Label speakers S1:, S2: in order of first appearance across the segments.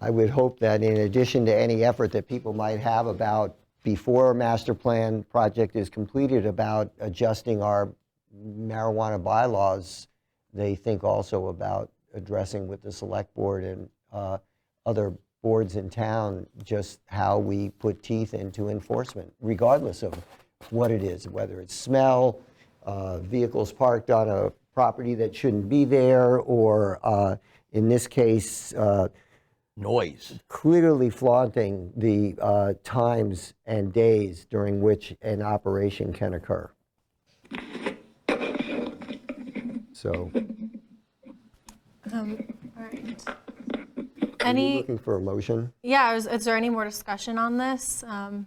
S1: I would hope that in addition to any effort that people might have about before a master plan project is completed about adjusting our marijuana bylaws, they think also about addressing with the select board and uh, other boards in town just how we put teeth into enforcement, regardless of what it is, whether it's smell, uh, vehicles parked on a property that shouldn't be there, or uh, in this case, uh,
S2: noise.
S1: clearly flaunting the uh, times and days during which an operation can occur. So,
S3: All right.
S1: are you
S3: Um, Any,
S1: looking for a motion?
S3: yeah, is, is there any more discussion on this? Um,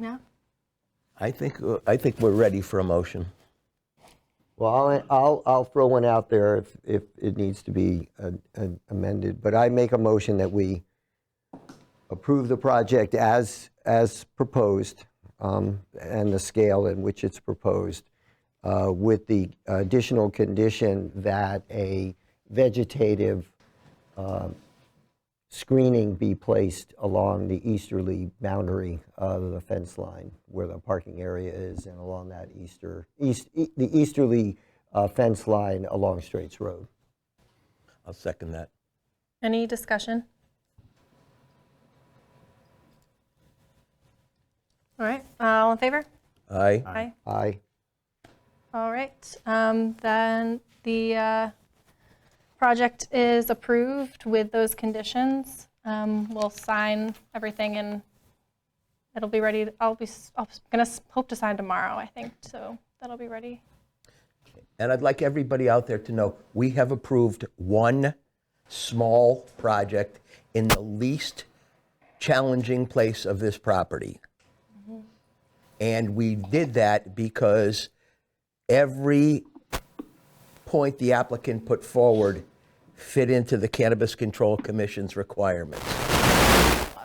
S3: No?
S2: I think, uh, I think we're ready for a motion.
S1: Well, I'll- I'll, I'll throw one out there if, if it needs to be uh, uh, amended, but I make a motion that we approve the project as, as proposed um, and the scale in which it's proposed, uh, with the additional condition that a vegetative um, screening be placed along the easterly boundary of the fence line where the parking area is and along that easter, east, e- the easterly uh, fence line along Straits Road.
S2: I'll second that.
S3: Any discussion? All right, all in favor?
S2: Aye.
S3: Aye.
S1: Aye.
S3: All right, um, then the uh, project is approved with those conditions. Um, We'll sign everything and it'll be ready, I'll be, s- I'm going to hope to sign tomorrow, I think, so that'll be ready.
S2: And I'd like everybody out there to know, we have approved one small project in the least challenging place of this property. And we did that because every point the applicant put forward fit into the Cannabis Control Commission's requirements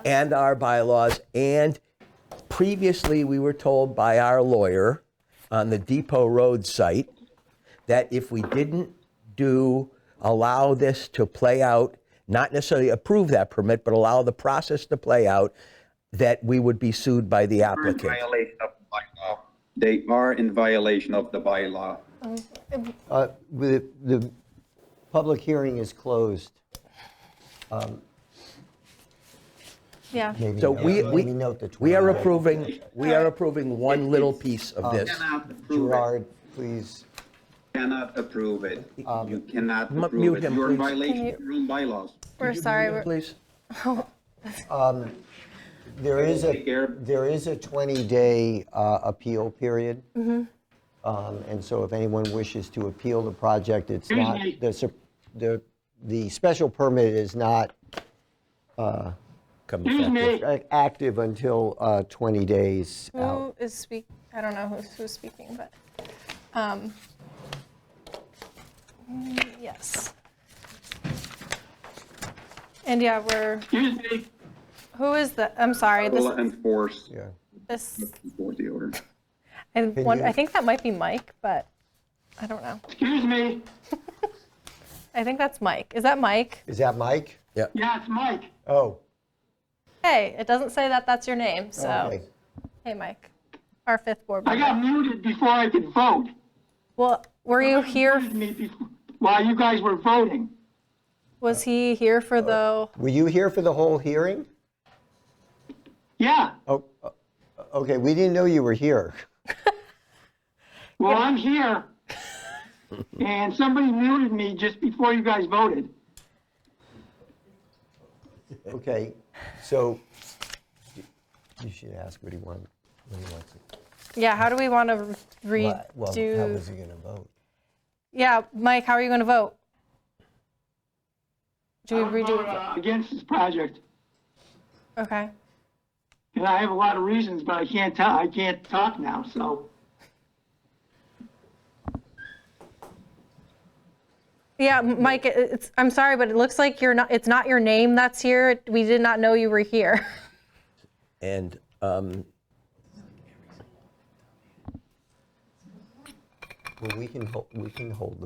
S2: and our bylaws. And previously, we were told by our lawyer on the Depot Road site that if we didn't do, allow this to play out, not necessarily approve that permit, but allow the process to play out, that we would be sued by the applicant.
S4: Violation of the bylaw. They are in violation of the bylaw.
S1: Uh, The the public hearing is closed.
S3: Yeah,
S1: Maybe
S2: So
S1: note-
S2: we,
S1: maybe
S2: we,
S1: note the
S2: we are
S1: 29th.
S2: approving, we are approving one little piece of this.
S4: Cannot approve it.
S1: Gerard, please.
S4: Cannot approve it. You cannot
S2: mu-
S4: approve
S2: mute
S4: it.
S2: him,
S4: You're in
S2: please.
S4: violation
S3: Can
S4: of your own bylaws.
S3: we're sorry, we're-
S2: Please.
S1: There is a,
S4: Take care.
S1: there is a 20-day uh, appeal period. Um, And so if anyone wishes to appeal the project, it's not, the, sup- the, the special permit is not
S2: Come effective.
S1: a- active until uh, 20 days
S3: Mm.
S1: out.
S3: who is speak, I don't know who's, who's speaking, but, um, mm, yes. And yeah, we're, who is the, I'm sorry, this,
S4: Will enforce
S1: Yeah.
S3: this
S4: enforce the order.
S3: I, one,
S1: you-
S3: I think that might be Mike, but I don't know.
S5: Excuse me,
S3: I think that's Mike. Is that Mike?
S1: Is that Mike?
S2: Yeah.
S5: yeah, it's Mike.
S1: Oh,
S3: Hey, it doesn't say that that's your name. So,
S1: Oh, okay.
S3: hey, Mike, our fifth board
S5: I
S3: member.
S5: got muted before I could vote.
S3: Well, were you here?
S5: Muted me before- While you guys were voting.
S3: Was he here
S1: Uh,
S3: for the?
S1: Were you here for the whole hearing?
S5: Yeah,
S1: Oh, uh, okay, we didn't know you were here.
S5: well, I'm here. And somebody muted me just before you guys voted.
S1: Okay, so you should ask what he wants, what he wants. to-
S3: Yeah. How do we want to redo?
S1: Well, how was he going to vote?
S3: yeah, Mike, how are you going to vote? Do we
S5: I would
S3: redo?
S5: vote, uh, Against this project,
S3: Okay.
S5: and I have a lot of reasons, but I can't tell, I can't talk now, so.
S3: Yeah, M- Mike. it- It's. I'm sorry, but it looks like you're not. It's not your name that's here. We did not know you were here.
S2: And um,
S1: Well, we can, hol- we can hold the